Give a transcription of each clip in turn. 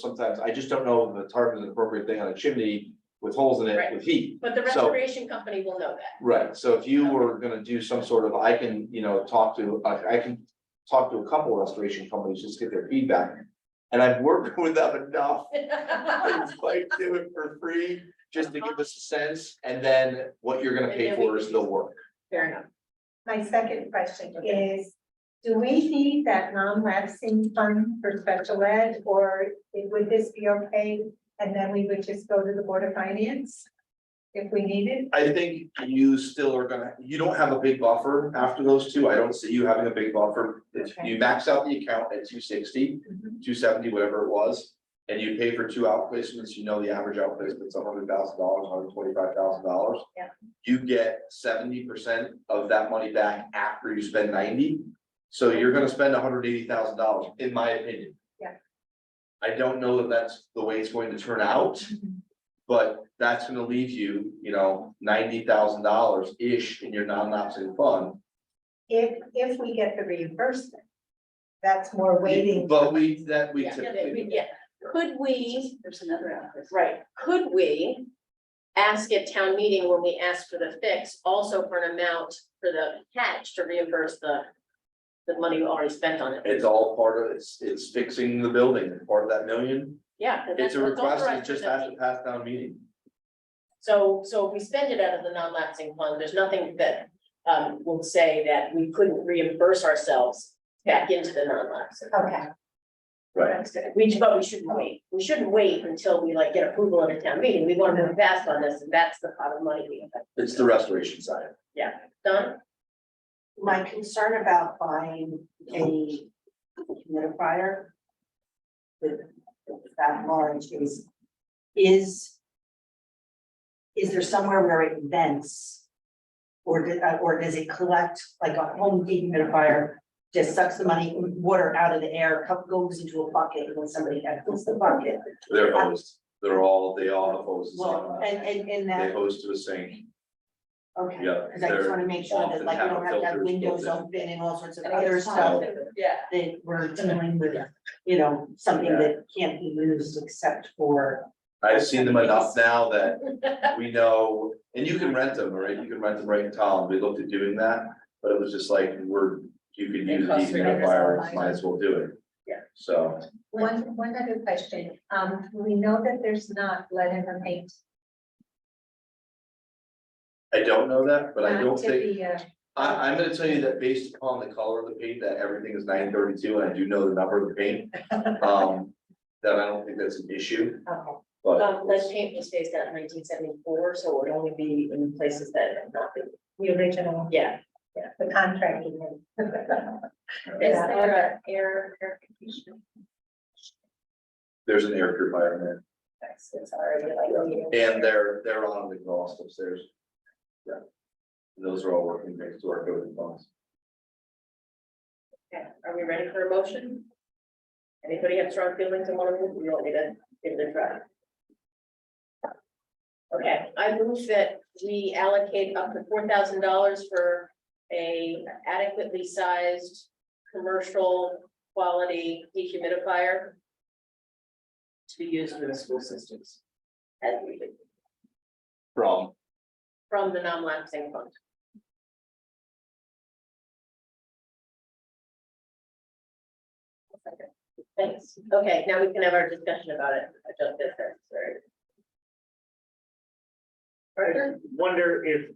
sometimes, I just don't know if the tarp is an appropriate thing on a chimney with holes in it Right. with heat. But the So- restoration company will know that. Right, so if you were gonna do some sort of, I can, you know, talk to, I, I can talk to a couple restoration companies, just get their feedback. And I've worked with them enough, it's like, do it for free, just to give us a sense, and then what you're gonna pay for is the work. Fair enough. My second question Okay. is, do we need that non-lapsing fund for special ed, or would this be okay? And then we would just go to the Board of Finance if we needed? I think you still are gonna, you don't have a big buffer after those two, I don't see you having a big buffer. If Okay. Mm-hmm. you max out the account at two sixty, two seventy, whatever it was. And you pay for two outplacements, you know the average outplacement's a hundred thousand dollars, hundred twenty-five thousand dollars. Yeah. You get seventy percent of that money back after you spend ninety, so you're gonna spend hundred eighty thousand dollars, in my opinion. Yeah. I don't know that that's the way it's going to turn out, Mm-hmm. but that's gonna leave you, you know, ninety thousand dollars-ish in your non-lapsing fund. If, if we get the reimbursement, that's more waiting. But we, that we Yeah, typically. Yeah, could we, There's another outlet. right, could we ask at town meeting when we ask for the fix, also for an amount for the catch to reimburse the the money we already spent on it? It's all part of, it's, it's fixing the building, part of that million, Yeah. 'cause it's a that's- request, that's it authorized just for the- has to pass down meeting. So, so if we spend it out of the non-lapsing fund, there's nothing that um will say that we couldn't reimburse ourselves back into the non-lapsing. Okay, That's good. We, but we shouldn't wait. We shouldn't wait until we like get approval at a town meeting. We want to move fast on this and that's the pot of money we have It's the restoration side. done. my concern about buying a humidifier with that large is, is is there somewhere where it vents? Or did, uh, or does it collect like a home dehumidifier, just sucks the money, water out of the air, cup goes into a bucket and then somebody empties the bucket? They're hosed, they're all, they all have hoses. Well, and, and, and They that, host to a sink, okay, yeah, cause I just they're, wanna make sure that often like you have don't have to have filters built windows in. open and all sorts of other stuff. Yeah. that we're dealing with, you know, something that can't be used except for. I've seen them enough now that we know, and you can rent them, right, you can rent them right in town, we looked at doing that. But it was just like, we're, you could They use a cost dehumidifier, might as well do it. Yeah. So, one, one other question, um, we know that there's not lead in the paint. I don't know that, but I not don't to think, be, uh, I, I'm gonna tell you that based upon the color of the paint, that everything is nine thirty-two, and I do know the number of the paint. Um, that I don't think that's an issue, Okay. but. Um, lead paint was phased out in nineteen seventy-four, so it would only be in places that have not been, the original, yeah. the contract. Is Yeah. there a air, air conditioning? There's an air purifier That's, it's already like. in there, and they're, they're on the exhaust upstairs. Yeah. And Those are all working next to our building phones. Okay, are we ready for a motion? Anybody have strong feelings on one of them? You want me to give it a try? Okay, I move that we allocate up to four thousand dollars for a adequately sized commercial quality dehumidifier to be used in the school systems as needed From. from the non-lapsing fund. Thanks. Okay, now we can have our discussion about it. I don't think that's very. I wonder if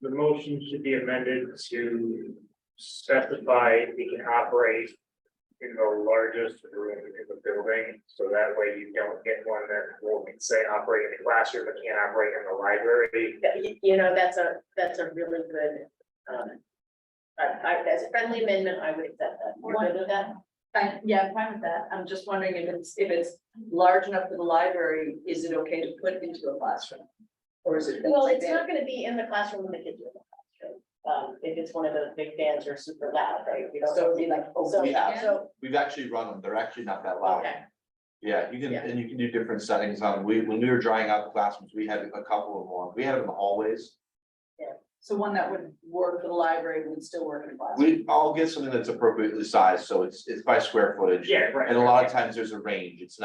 the motion should be amended to specify we can operate in the largest room in the building, so that way you don't get one that will say operate in the classroom, but can't operate in the library. that- y- You know, that's a, that's a really good, um, I, I, as a friendly amendment, I would accept that. You're good with that? Fine, yeah, I'm fine with that. I'm just wondering if it's, if it's large enough for the library, is it okay to put into a classroom? Or is it? Well, it's not gonna be in the classroom when the kids are in the classroom. Um, if it's one of those big fans are super loud, right? We don't- So it'd be like, So, oh, We have. so, We've actually run them, they're actually not that loud. okay, Yeah, you can, Yeah. and you can do different settings on, we, when we were drying out the classrooms, we had a couple of them, on. we had them in the hallways. so one that would work for the library would still work in a classroom. We, I'll get something that's appropriately sized, so it's, it's by square footage. Yeah, right. And a lot of times there's a range, it's not